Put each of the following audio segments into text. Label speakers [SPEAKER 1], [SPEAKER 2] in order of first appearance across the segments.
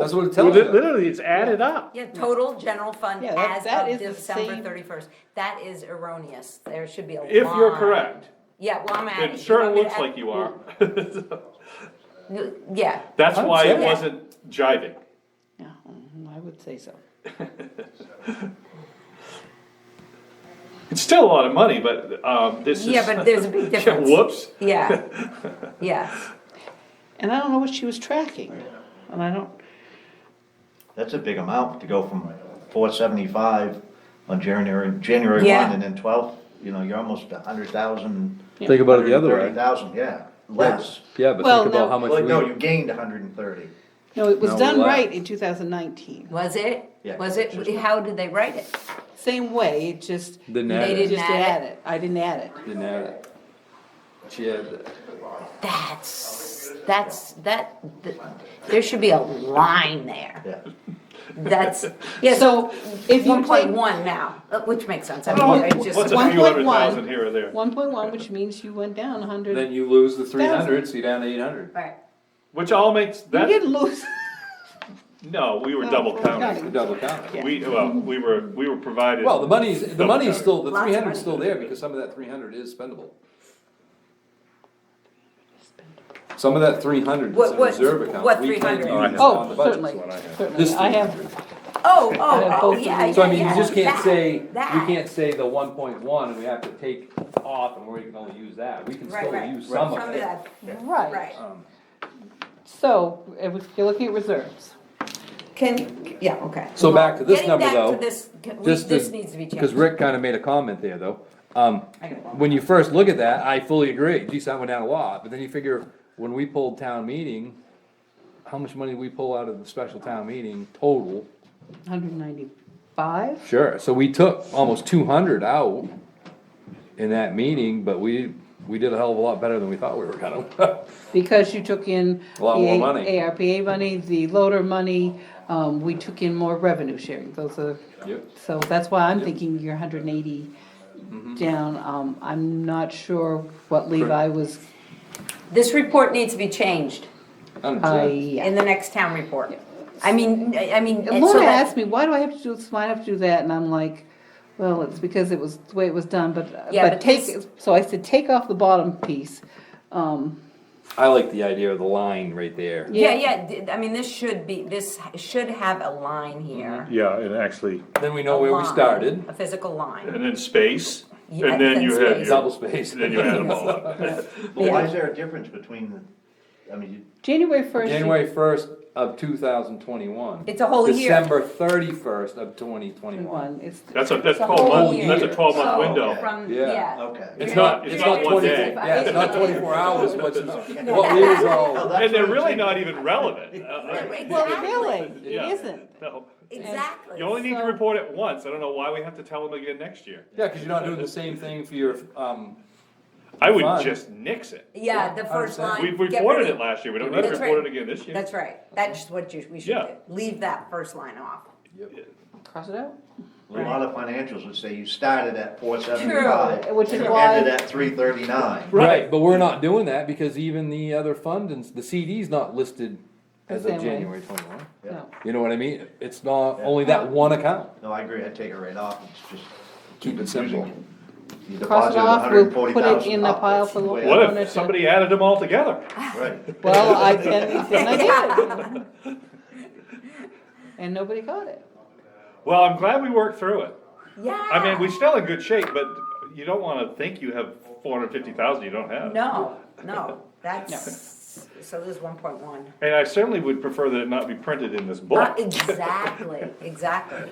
[SPEAKER 1] That's what it
[SPEAKER 2] Well,
[SPEAKER 1] tells
[SPEAKER 2] li-
[SPEAKER 1] you.
[SPEAKER 2] Literally, it's added up.
[SPEAKER 3] Yeah, total general fund
[SPEAKER 4] Yeah, that-
[SPEAKER 3] as
[SPEAKER 4] that
[SPEAKER 3] of
[SPEAKER 4] is the
[SPEAKER 3] December
[SPEAKER 4] same-
[SPEAKER 3] thirty-first. That is erroneous. There should be a line.
[SPEAKER 2] If you're correct,
[SPEAKER 3] Yeah, well, I'm at.
[SPEAKER 2] it sure looks like you are.
[SPEAKER 3] Yeah,
[SPEAKER 2] That's why it
[SPEAKER 1] Yeah.
[SPEAKER 2] wasn't jiving.
[SPEAKER 4] Yeah, mhm, I would say so.
[SPEAKER 2] It's still a lot of money, but, um, this is.
[SPEAKER 3] yeah, but there's a big
[SPEAKER 2] Yeah,
[SPEAKER 3] difference.
[SPEAKER 2] Whoops.
[SPEAKER 3] Yeah, yeah.
[SPEAKER 4] And I don't know what she was tracking, and I don't,
[SPEAKER 5] That's a big amount to go from four seventy-five on January, January
[SPEAKER 3] Yeah.
[SPEAKER 5] one and then twelve, you know, you're almost a hundred thousand.
[SPEAKER 1] Think about it the other
[SPEAKER 5] Thirty
[SPEAKER 1] way.
[SPEAKER 5] thousand, yeah, less.
[SPEAKER 1] Yeah, but
[SPEAKER 4] Well,
[SPEAKER 1] think about
[SPEAKER 4] no.
[SPEAKER 1] how much
[SPEAKER 5] Well, no,
[SPEAKER 1] we,
[SPEAKER 5] you gained a hundred and thirty.
[SPEAKER 4] no, it was
[SPEAKER 1] No,
[SPEAKER 4] done
[SPEAKER 1] less.
[SPEAKER 4] right in two thousand nineteen.
[SPEAKER 3] Was it?
[SPEAKER 5] Yeah,
[SPEAKER 3] Was
[SPEAKER 5] it's
[SPEAKER 3] it?
[SPEAKER 5] just-
[SPEAKER 3] How did they write it?
[SPEAKER 4] Same way, it just.
[SPEAKER 1] Didn't
[SPEAKER 4] you
[SPEAKER 1] add it.
[SPEAKER 4] just
[SPEAKER 3] Didn't add
[SPEAKER 4] it. I didn't add it.
[SPEAKER 1] didn't add it. She had it.
[SPEAKER 3] That's, that's, that, th- there should be a line there.
[SPEAKER 5] Yeah,
[SPEAKER 3] That's, yeah, so
[SPEAKER 4] So if you
[SPEAKER 3] one point
[SPEAKER 4] take
[SPEAKER 3] one now, uh, which makes sense. I mean, I
[SPEAKER 2] What's
[SPEAKER 3] just,
[SPEAKER 2] a few hundred
[SPEAKER 4] 1.1.
[SPEAKER 2] thousand here or there?
[SPEAKER 4] one point one, which means you went down a hundred,
[SPEAKER 1] Then you lose the three hundred, so you're down to eight hundred.
[SPEAKER 3] right.
[SPEAKER 2] Which all makes,
[SPEAKER 4] you
[SPEAKER 2] that,
[SPEAKER 4] didn't lose.
[SPEAKER 2] no, we were
[SPEAKER 3] Oh,
[SPEAKER 4] No,
[SPEAKER 2] double
[SPEAKER 4] we're
[SPEAKER 2] counting.
[SPEAKER 4] counting.
[SPEAKER 1] Double counted.
[SPEAKER 4] Yeah.
[SPEAKER 2] We, well, we were, we were provided.
[SPEAKER 1] Well, the money's, the
[SPEAKER 2] Double
[SPEAKER 1] money's
[SPEAKER 2] counted.
[SPEAKER 1] still, the
[SPEAKER 3] Lots of
[SPEAKER 1] three hundred's
[SPEAKER 3] money.
[SPEAKER 1] still there because some of that three hundred is spendable. Some of that three hundred is
[SPEAKER 3] What-
[SPEAKER 1] a
[SPEAKER 3] what-
[SPEAKER 1] reserve account.
[SPEAKER 3] what
[SPEAKER 1] We plan to
[SPEAKER 3] 300?
[SPEAKER 1] use on
[SPEAKER 4] Oh,
[SPEAKER 1] the budget.
[SPEAKER 4] certainly,
[SPEAKER 1] This
[SPEAKER 4] certainly, I have,
[SPEAKER 1] 300.
[SPEAKER 3] Oh, oh,
[SPEAKER 4] have
[SPEAKER 3] oh,
[SPEAKER 4] both of
[SPEAKER 3] yeah, yeah,
[SPEAKER 4] these.
[SPEAKER 1] So I mean, you
[SPEAKER 3] yeah,
[SPEAKER 1] just can't
[SPEAKER 3] that,
[SPEAKER 1] say, you
[SPEAKER 3] that.
[SPEAKER 1] can't say the one point one and we have to take off and we can only use that. We can
[SPEAKER 3] Right,
[SPEAKER 1] still
[SPEAKER 3] right.
[SPEAKER 1] use some of it. Um,
[SPEAKER 3] that,
[SPEAKER 4] right.
[SPEAKER 3] right.
[SPEAKER 4] So, if you're looking at reserves,
[SPEAKER 3] Can, yeah, okay.
[SPEAKER 1] So back to this number, though,
[SPEAKER 3] Getting back to this, we-
[SPEAKER 1] just to-
[SPEAKER 3] this needs to be changed.
[SPEAKER 1] Cause Rick kinda made a comment there though. Um,
[SPEAKER 3] I got one.
[SPEAKER 1] when you first look at that, I fully agree, geez, that went down a lot, but then you figure, when we pulled town meeting, how much money did we pull out of the special town meeting total?
[SPEAKER 4] hundred ninety-five?
[SPEAKER 1] Sure, so we took almost two hundred out in that meeting, but we, we did a hell of a lot better than we thought we were gonna.
[SPEAKER 4] Because you took in.
[SPEAKER 1] A lot
[SPEAKER 4] the
[SPEAKER 1] more
[SPEAKER 4] A-
[SPEAKER 1] money.
[SPEAKER 4] ARPA money, the loader money, um, we took in more revenue sharing, those are,
[SPEAKER 1] Yep.
[SPEAKER 4] so that's why I'm thinking you're hundred and eighty down, um, I'm not sure what Levi was,
[SPEAKER 3] This report needs to be changed
[SPEAKER 4] I,
[SPEAKER 3] in the next town report. I mean, I I mean.
[SPEAKER 4] And
[SPEAKER 3] so
[SPEAKER 4] Laura
[SPEAKER 3] that-
[SPEAKER 4] asked me, why do I have to do this, why do I have to do that, and I'm like, well, it's because it was the way it was done, but, uh,
[SPEAKER 3] Yeah,
[SPEAKER 4] but
[SPEAKER 3] but
[SPEAKER 4] take,
[SPEAKER 3] this-
[SPEAKER 4] so I said, take off the bottom piece. Um,
[SPEAKER 1] I like the idea of the line right there.
[SPEAKER 3] Yeah, yeah, d- I mean, this should be, this should have a line here.
[SPEAKER 2] Yeah, and actually.
[SPEAKER 1] Then we Mm-hmm. know
[SPEAKER 3] A
[SPEAKER 1] where we
[SPEAKER 3] line,
[SPEAKER 1] started,
[SPEAKER 3] A physical line.
[SPEAKER 2] And then space,
[SPEAKER 3] Yeah,
[SPEAKER 2] and then
[SPEAKER 3] then
[SPEAKER 2] you had.
[SPEAKER 3] space.
[SPEAKER 2] your-
[SPEAKER 1] double space.
[SPEAKER 2] Then you add them all up.
[SPEAKER 5] well, why
[SPEAKER 3] Yeah.
[SPEAKER 5] is there a difference between the, I mean, you-
[SPEAKER 4] January first.
[SPEAKER 1] January first of two thousand twenty-one.
[SPEAKER 3] It's a whole year.
[SPEAKER 1] December thirty-first of twenty twenty-one.
[SPEAKER 4] One, it's,
[SPEAKER 2] That's a, that's
[SPEAKER 3] It's a
[SPEAKER 2] twelve
[SPEAKER 3] whole
[SPEAKER 2] month, that's a
[SPEAKER 3] year.
[SPEAKER 2] twelve month
[SPEAKER 3] So
[SPEAKER 2] window.
[SPEAKER 3] From,
[SPEAKER 1] Yeah.
[SPEAKER 3] yeah.
[SPEAKER 5] okay.
[SPEAKER 2] It's not, it's not one
[SPEAKER 1] 20
[SPEAKER 2] day.
[SPEAKER 1] Yeah, it's not twenty-four hours, but
[SPEAKER 5] No.
[SPEAKER 1] what we was
[SPEAKER 5] Oh,
[SPEAKER 1] all,
[SPEAKER 5] that's
[SPEAKER 2] And they're
[SPEAKER 5] what I'm
[SPEAKER 2] really
[SPEAKER 5] saying.
[SPEAKER 2] not even relevant. Uh, uh,
[SPEAKER 4] well,
[SPEAKER 3] Exactly,
[SPEAKER 4] really,
[SPEAKER 2] Yeah.
[SPEAKER 4] it isn't.
[SPEAKER 2] no.
[SPEAKER 3] exactly.
[SPEAKER 2] You only need to
[SPEAKER 4] So-
[SPEAKER 2] report it once, I don't know why we have to tell them again next year.
[SPEAKER 1] yeah, cause you're not doing the same thing for your, um,
[SPEAKER 2] I would
[SPEAKER 1] Fine.
[SPEAKER 2] just nix it.
[SPEAKER 3] Yeah, the first
[SPEAKER 1] understand.
[SPEAKER 3] line.
[SPEAKER 2] We've
[SPEAKER 3] get rid
[SPEAKER 2] reported
[SPEAKER 3] of-
[SPEAKER 2] it last year, we don't need to
[SPEAKER 3] That's
[SPEAKER 2] report it
[SPEAKER 3] right.
[SPEAKER 2] again this year.
[SPEAKER 3] That's right, that's what you, we should
[SPEAKER 2] Yeah.
[SPEAKER 3] do, leave that first line off.
[SPEAKER 4] Cross it out.
[SPEAKER 5] A lot of financials would say you started at four seventy-five.
[SPEAKER 4] True, which is why-
[SPEAKER 5] Ended at three thirty-nine.
[SPEAKER 1] right, but we're not doing that because even the other fund and s- the CD's not listed as of
[SPEAKER 4] The same way.
[SPEAKER 1] January twenty-one.
[SPEAKER 4] No.
[SPEAKER 1] You know what I mean? It's not, only that one account,
[SPEAKER 5] No, I agree, I'd take it right off, it's just.
[SPEAKER 1] keep it simple.
[SPEAKER 5] You
[SPEAKER 4] Cross
[SPEAKER 5] deposited
[SPEAKER 4] it off, we'll put it
[SPEAKER 5] 140,000
[SPEAKER 4] in the
[SPEAKER 5] up.
[SPEAKER 4] pile for the.
[SPEAKER 5] Way
[SPEAKER 2] What
[SPEAKER 5] up.
[SPEAKER 2] if somebody added them all together?
[SPEAKER 5] Right.
[SPEAKER 4] Well, I, and then I did. And nobody caught it.
[SPEAKER 2] Well, I'm glad we worked through it.
[SPEAKER 3] Yeah.
[SPEAKER 2] I mean, we're still in good shape, but you don't wanna think you have four hundred fifty thousand you don't have.
[SPEAKER 3] No, no, that's, so this is one point one. Uh,
[SPEAKER 2] And I certainly would prefer that it not be printed in this book.
[SPEAKER 3] Exactly, exactly.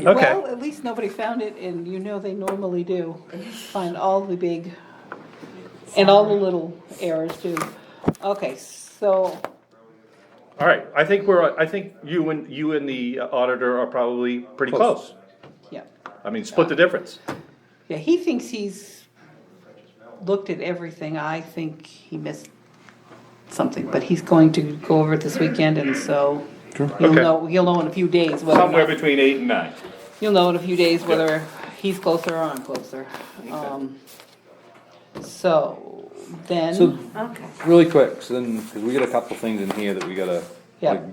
[SPEAKER 2] Okay,
[SPEAKER 4] Well, at least nobody found it, and you know they normally do, find all the big, and all the little errors too. Okay, so,
[SPEAKER 2] all right, I think we're, I think you and, you and the auditor are probably pretty
[SPEAKER 1] Close.
[SPEAKER 2] close.
[SPEAKER 4] yeah,
[SPEAKER 2] I mean, split the difference.
[SPEAKER 4] yeah, he thinks he's looked at everything, I think he missed something, but he's going to go over it this weekend, and so you'll
[SPEAKER 2] Okay.
[SPEAKER 4] know, you'll know in a few days whether or
[SPEAKER 2] Somewhere
[SPEAKER 4] not-
[SPEAKER 2] between eight and nine.
[SPEAKER 4] You'll know in a few days whether he's closer or I'm closer. Um, So,
[SPEAKER 1] So
[SPEAKER 4] then,
[SPEAKER 3] Okay.
[SPEAKER 1] Really quick, so then, cause we got a couple things in here that we gotta,
[SPEAKER 4] Yeah.
[SPEAKER 1] like,